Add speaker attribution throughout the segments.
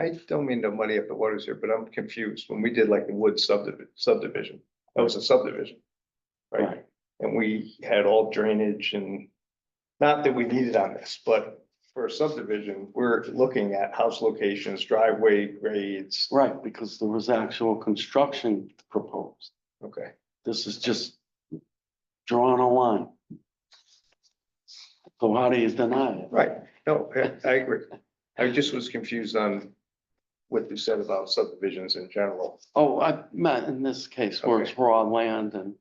Speaker 1: I don't mean to muddy up the waters here, but I'm confused. When we did like the wood subdivision, subdivision, that was a subdivision. Right?
Speaker 2: Right.
Speaker 1: And we had all drainage and, not that we needed on this, but for a subdivision, we're looking at house locations, driveway grades.
Speaker 2: Right, because there was actual construction proposed.
Speaker 1: Okay,
Speaker 2: This is just drawing a line. So how do you deny it?
Speaker 1: right. No, I- I agree. I just was confused on what you said about subdivisions in general.
Speaker 2: Oh, I meant in this case where it's raw land and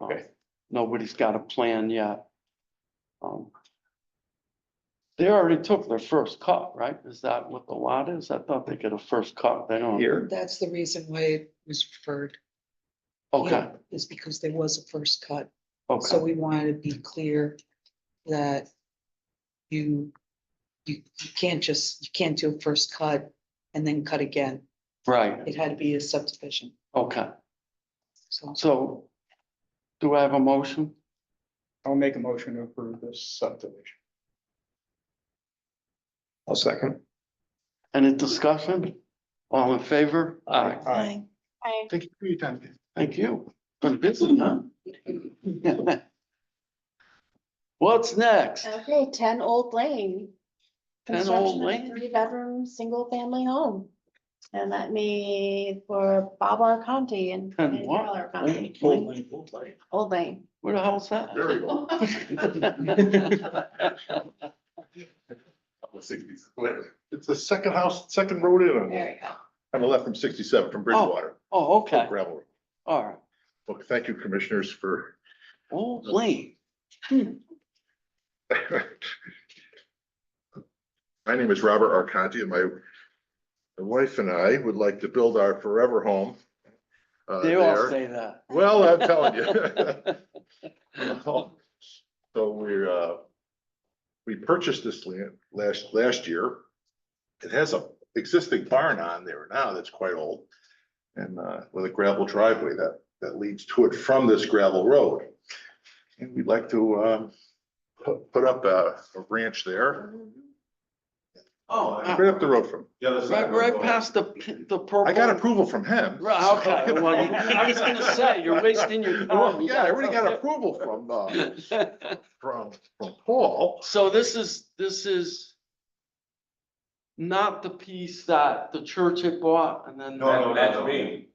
Speaker 2: uh,
Speaker 1: Okay.
Speaker 2: nobody's got a plan yet. Um, They already took their first cut, right? Is that what the lot is? I thought they get a first cut. They don't.
Speaker 1: Here,
Speaker 3: That's the reason why it was referred.
Speaker 2: Okay,
Speaker 3: yeah, Is because there was a first cut, so
Speaker 2: okay.
Speaker 3: we wanted to be clear that you, you, you can't just, you can't do a first cut and then cut again.
Speaker 2: Right,
Speaker 3: It had to be a subdivision,
Speaker 2: okay.
Speaker 3: so.
Speaker 2: So do I have a motion?
Speaker 4: I'll make a motion to approve this subdivision.
Speaker 1: I'll second.
Speaker 2: Any discussion? All in favor? Aye.
Speaker 4: Aye.
Speaker 5: Aye.
Speaker 4: Thank you for your time. Dave.
Speaker 2: Thank you. Been busy, huh? What's next?
Speaker 5: Okay, ten Old Lane.
Speaker 2: 10 Old
Speaker 5: Construction of a
Speaker 2: Lane?
Speaker 5: Three-bedroom, single-family home. And that made for Bob R. Conti and.
Speaker 2: 10
Speaker 5: and
Speaker 2: what?
Speaker 5: Carol R. Conti. Old Lane.
Speaker 2: Where the hell's that?
Speaker 6: Very well. It's the second house, second road in on,
Speaker 5: There you
Speaker 6: on the left from sixty-seven from Bridgewater,
Speaker 2: Oh, okay,
Speaker 6: gravel. road.
Speaker 2: all right.
Speaker 6: Well, thank you, commissioners, for,
Speaker 2: Old Lane.
Speaker 6: my name is Robert Arconti, and my my wife and I would like to build our forever home. uh,
Speaker 2: They all
Speaker 6: there.
Speaker 2: say that.
Speaker 6: Well, I'm telling you. So we're, uh, we purchased this land last, last year. It has a existing barn on there now that's quite old. And, uh, with a gravel driveway that, that leads to it from this gravel road. And we'd like to, um, pu- put up a a ranch there.
Speaker 5: go.
Speaker 2: Oh, uh,
Speaker 6: Right up the road from,
Speaker 2: right, right past the, p- the purple.
Speaker 6: I got approval from him.
Speaker 2: Right, okay, well, you- I was gonna say, you're wasting your time.
Speaker 6: Yeah, I already got approval from, uh, from, from Paul.
Speaker 2: So this is, this is not the piece that the church had bought and then.
Speaker 7: No, no, that's me.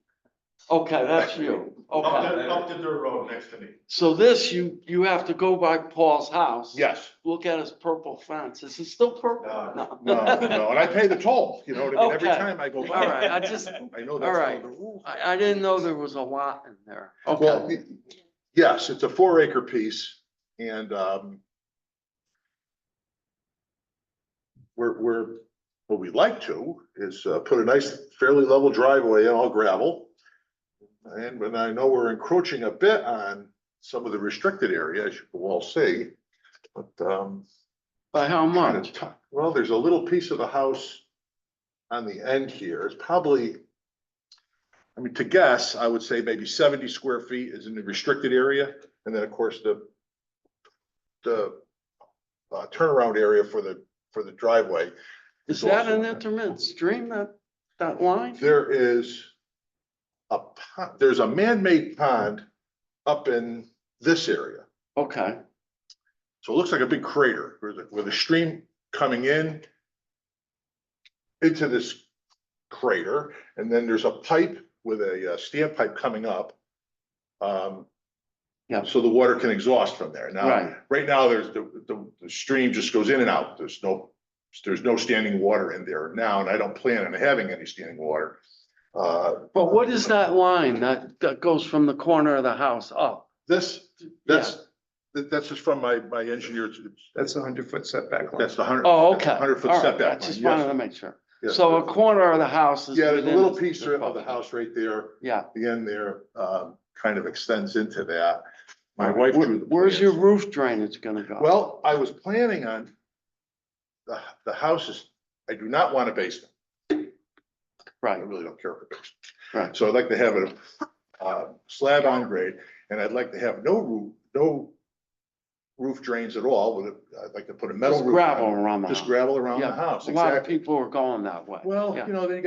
Speaker 2: Okay, that's you.
Speaker 7: Up
Speaker 2: Okay.
Speaker 7: the, up the dirt road next to me.
Speaker 2: So this, you, you have to go by Paul's house.
Speaker 6: Yes.
Speaker 2: Look at his purple fence. Is it still purple?
Speaker 7: No.
Speaker 6: No, no, and I pay the toll, you know what I mean, every
Speaker 2: Okay.
Speaker 6: time I go by.
Speaker 2: All right, I just,
Speaker 6: I know
Speaker 2: all
Speaker 6: that's one
Speaker 2: right.
Speaker 6: of the rules.
Speaker 2: I, I didn't know there was a lot in there.
Speaker 6: Well,
Speaker 2: Okay,
Speaker 6: y- yes, it's a four acre piece and, um, we're, we're, what we like to is uh, put a nice fairly level driveway in all gravel. And when I know we're encroaching a bit on some of the restricted area, as you will all see, but, um,
Speaker 2: by how
Speaker 6: kinda
Speaker 2: much?
Speaker 6: tuck- Well, there's a little piece of the house on the end here. It's probably, I mean, to guess, I would say maybe seventy square feet is in the restricted area. And then, of course, the, the uh, turnaround area for the, for the driveway.
Speaker 2: Is that
Speaker 6: also-
Speaker 2: an intermittent stream, that, that line?
Speaker 6: There is a, pond. there's a man-made pond up in this area.
Speaker 2: Okay,
Speaker 6: So it looks like a big crater with, a- with a stream coming in into this crater, and then there's a pipe with a uh, standpipe coming up. Um,
Speaker 2: Yeah.
Speaker 6: so the water can exhaust from there. Now,
Speaker 2: Right.
Speaker 6: right now, there's the, the, the stream just goes in and out. There's no, there's no standing water in there now, and I don't plan on having any standing water. Uh,
Speaker 2: but what is that line that, that goes from the corner of the house up?
Speaker 6: this, that's, that- that's just from my, my engineer's,
Speaker 1: That's a hundred foot setback line.
Speaker 6: that's the hundred.
Speaker 2: Oh, okay.
Speaker 6: Hundred foot
Speaker 2: All right,
Speaker 6: setback.
Speaker 2: I just
Speaker 6: line, yes.
Speaker 2: wanted to make sure.
Speaker 6: Yeah.
Speaker 2: So a corner of the house is.
Speaker 6: Yeah, there's a
Speaker 2: within
Speaker 6: little
Speaker 2: the-
Speaker 6: piece of of the house right there,
Speaker 2: Yeah.
Speaker 6: the end there, um, kind of extends into that. My wife.
Speaker 2: Where-
Speaker 6: drew the
Speaker 2: Where's your
Speaker 6: plans.
Speaker 2: roof drainage gonna go?
Speaker 6: Well, I was planning on the, the house is, I do not want a basement. I
Speaker 2: Right,
Speaker 6: really don't care for basement.
Speaker 2: Right.
Speaker 6: So I'd like to have a, uh, slab on grade and I'd like to have no roof, no roof drains at all, would, it- I'd like to put a metal
Speaker 2: Just
Speaker 6: roof.
Speaker 2: gravel
Speaker 6: on it.
Speaker 2: around the house.
Speaker 6: Just gravel around
Speaker 2: Yeah,
Speaker 6: the house,
Speaker 2: A lot of
Speaker 6: exactly.
Speaker 2: people are going that way.
Speaker 6: Well,
Speaker 2: Yeah.
Speaker 6: you know, then you